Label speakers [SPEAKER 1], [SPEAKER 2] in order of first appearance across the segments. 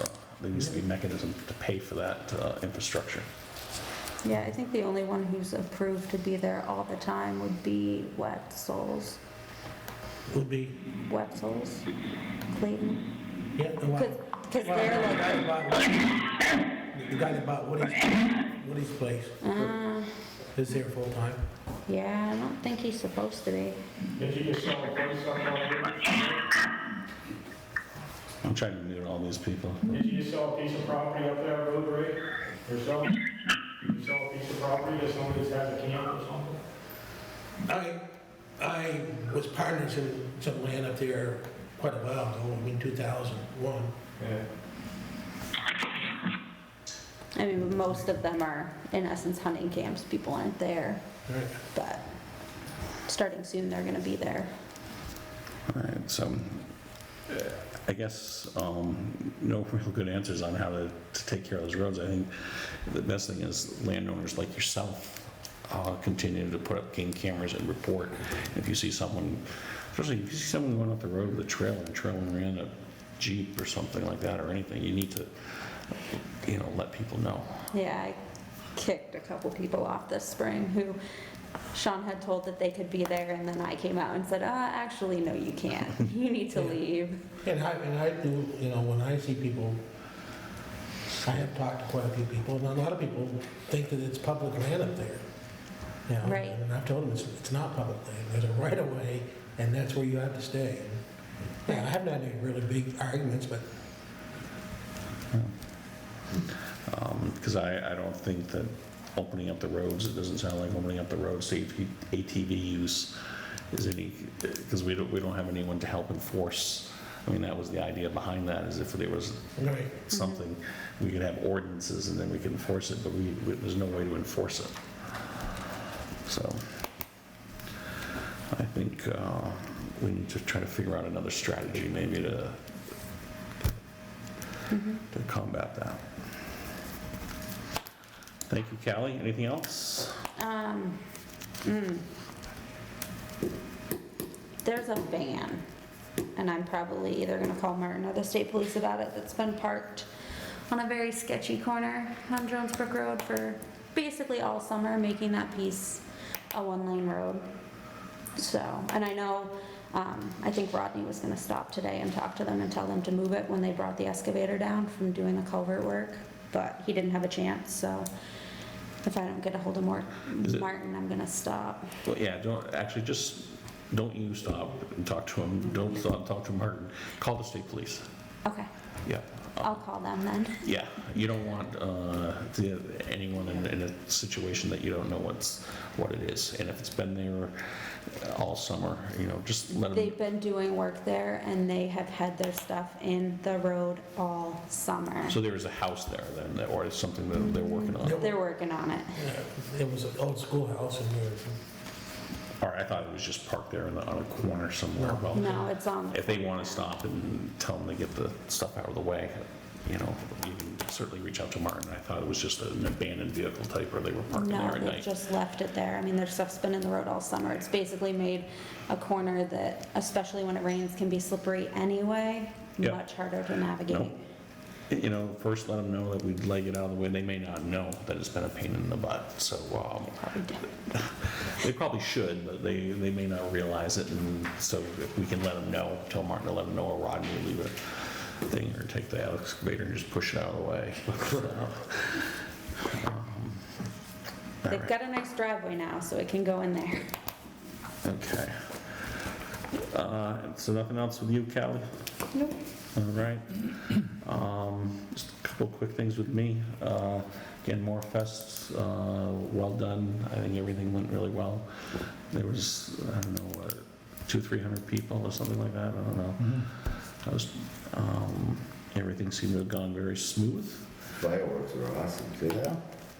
[SPEAKER 1] Uh, there needs to be a mechanism to pay for that uh, infrastructure.
[SPEAKER 2] Yeah, I think the only one who's approved to be there all the time would be Wetzel's,
[SPEAKER 3] would be,
[SPEAKER 2] Wetzel's, Clayton.
[SPEAKER 3] yeah, the one.
[SPEAKER 2] Because they're
[SPEAKER 3] The
[SPEAKER 2] like,
[SPEAKER 3] guy that bought- the guy that bought Woody's, Woody's place
[SPEAKER 2] uh,
[SPEAKER 3] is there full time.
[SPEAKER 2] yeah, I don't think he's supposed to be.
[SPEAKER 4] Did you just sell a place on there?
[SPEAKER 1] I'm trying to meet all these people.
[SPEAKER 4] Did you just sell a piece of property up there, Road Ray, yourself? Did you sell a piece of property to somebody that has a camp or something?
[SPEAKER 3] I, I was partners in some land up there quite a while ago, I mean, 2001.
[SPEAKER 4] Yeah.
[SPEAKER 2] I mean, most of them are, in essence, hunting camps. People aren't there,
[SPEAKER 3] Right.
[SPEAKER 2] but starting soon, they're gonna be there.
[SPEAKER 1] All right, so uh, I guess um, no real good answers on how to, to take care of those roads. I think the best thing is landowners like yourself uh, continue to put up game cameras and report. If you see someone, especially if you see someone going up the road with a trailer and trailing around a Jeep or something like that or anything, you need to, you know, let people know.
[SPEAKER 2] Yeah, I kicked a couple people off this spring who Sean had told that they could be there, and then I came out and said, uh, actually, no, you can't. You need to leave.
[SPEAKER 3] And I, and I do, you know, when I see people, I have talked to quite a few people, and a lot of people think that it's public land up there. You know,
[SPEAKER 2] Right.
[SPEAKER 3] And I've told them it's, it's not public land, there's a right of way, and that's where you have to stay. Yeah, I haven't had any really big arguments, but
[SPEAKER 1] Because Um, I, I don't think that opening up the roads, it doesn't sound like opening up the roads to AT- ATV use is any, because we don't, we don't have anyone to help enforce. I mean, that was the idea behind that, is if there was
[SPEAKER 3] Right,
[SPEAKER 1] Mm-hmm. something, we could have ordinances and then we could enforce it, but we, we- there's no way to enforce it. So I think uh, we need to try to figure out another strategy maybe to, to combat that. Thank you, Callie. Anything else?
[SPEAKER 2] Um, mm. There's a van, and I'm probably either gonna call Martin or the state police about it, that's been parked on a very sketchy corner on Jones Brook Road for basically all summer, making that piece a one-lane road. So, and I know, um, I think Rodney was gonna stop today and talk to them and tell them to move it when they brought the excavator down from doing the culvert work, but he didn't have a chance, so if I don't get a hold of Mort,
[SPEAKER 1] Is it-
[SPEAKER 2] Martin, I'm gonna stop.
[SPEAKER 1] Well, yeah, don't, actually, just, don't you stop and talk to him. Don't stop, talk to Martin. Call the state police.
[SPEAKER 2] Okay,
[SPEAKER 1] Yeah.
[SPEAKER 2] I'll call them then.
[SPEAKER 1] Yeah, you don't want uh, the- anyone in- in a situation that you don't know what's, what it is. And if it's been there all summer, you know, just let them,
[SPEAKER 2] They've been doing work there and they have had their stuff in the road all summer.
[SPEAKER 1] so there is a house there then, that- or it's something that they're working on?
[SPEAKER 3] Yep.
[SPEAKER 2] They're working on it.
[SPEAKER 3] yeah, it was an old schoolhouse and we were,
[SPEAKER 1] Or I thought it was just parked there in the- on a corner somewhere. Well,
[SPEAKER 2] No, it's on,
[SPEAKER 1] if they want to stop and tell them to get the stuff out of the way, you know, you can certainly reach out to Martin. I thought it was just an abandoned vehicle type where they were parking there
[SPEAKER 2] no,
[SPEAKER 1] at
[SPEAKER 2] they've
[SPEAKER 1] night.
[SPEAKER 2] just left it there. I mean, their stuff's been in the road all summer. It's basically made a corner that, especially when it rains, can be slippery anyway,
[SPEAKER 1] Yeah.
[SPEAKER 2] much harder to navigate.
[SPEAKER 1] you know, first let them know that we'd like it out of the way. They may not know that it's been a pain in the butt, so um,
[SPEAKER 2] Probably don't.
[SPEAKER 1] they probably should, but they, they may not realize it. And so if we can let them know, tell Martin to let them know, or Rodney will leave a thing, or take the excavator and just push it out of the way. Um, all
[SPEAKER 2] They've
[SPEAKER 1] right,
[SPEAKER 2] got a nice driveway now, so it can go in there.
[SPEAKER 1] Okay. Uh, So nothing else with you, Callie?
[SPEAKER 2] Nope.
[SPEAKER 1] All right. Um, Just a couple quick things with me. Uh, Again, More Fest, uh, well done. I think everything went really well. There was, I don't know, what, two, 300 people or something like that, I don't know. I was, um, everything seemed to have gone very smooth.
[SPEAKER 5] Fireworks are awesome, see that?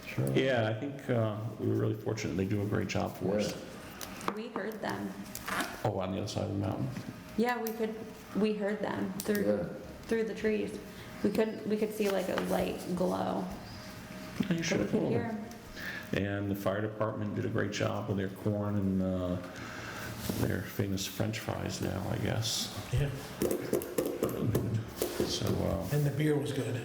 [SPEAKER 5] Sure.
[SPEAKER 1] Yeah, I think uh, we were really fortunate. They do a great job for us.
[SPEAKER 2] We heard them.
[SPEAKER 1] Oh, on the other side of the mountain.
[SPEAKER 2] Yeah, we could, we heard them through,
[SPEAKER 5] Yeah.
[SPEAKER 2] through the trees. We couldn't, we could see like a light glow,
[SPEAKER 1] Yeah, You
[SPEAKER 2] but
[SPEAKER 1] should
[SPEAKER 2] we
[SPEAKER 1] have
[SPEAKER 2] could
[SPEAKER 1] told
[SPEAKER 2] hear
[SPEAKER 1] them.
[SPEAKER 2] 'em.
[SPEAKER 1] And the fire department did a great job with their corn and uh, their famous french fries now, I guess.
[SPEAKER 3] yeah,
[SPEAKER 1] So, uh,
[SPEAKER 3] and the beer was good.